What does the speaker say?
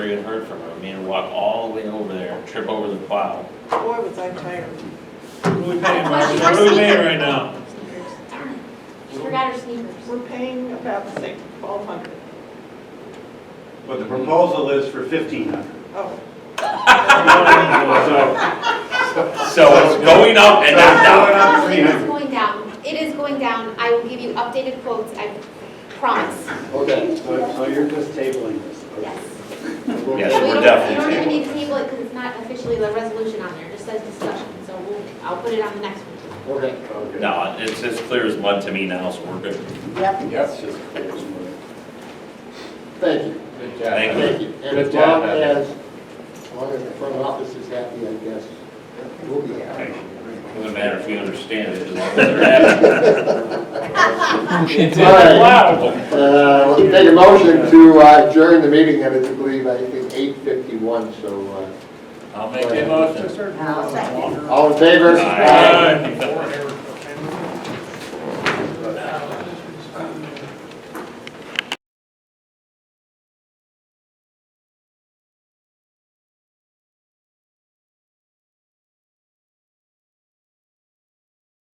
never even heard from her. Me and walk all the way over there, trip over the plow. Boy, was I tired. What are we paying, Marcy? Where's What are we Marcy? paying right now? Darn it. She forgot her sneakers. We're paying about the same, twelve hundred. But the proposal is for fifteen hundred. Oh, So So it's going up and not down. No, it is going down. It is going down. I will give you updated quotes, I promise. Okay, So so you're just tabling this. Yes. Yes, We we're definitely don't- You don't even tabling need to table it because it's not officially the resolution on there. It just says discussion. So we'll, I'll put it on the next one. okay. Okay. No, it's as clear as mud to me now, so we're good. yep. That's just clear as mud. Thank you. Good job. Thank you. And as Good job, long Heather. as, as long as the front office is happy, I guess, we'll be happy. It Doesn't matter if we understand it, as long as they're happy. All right, Wow. uh, let's take a motion to uh, adjourn the meeting, and it's, I believe, I think, eight fifty-one, so, I'll make a motion. uh, all in favor? Aye.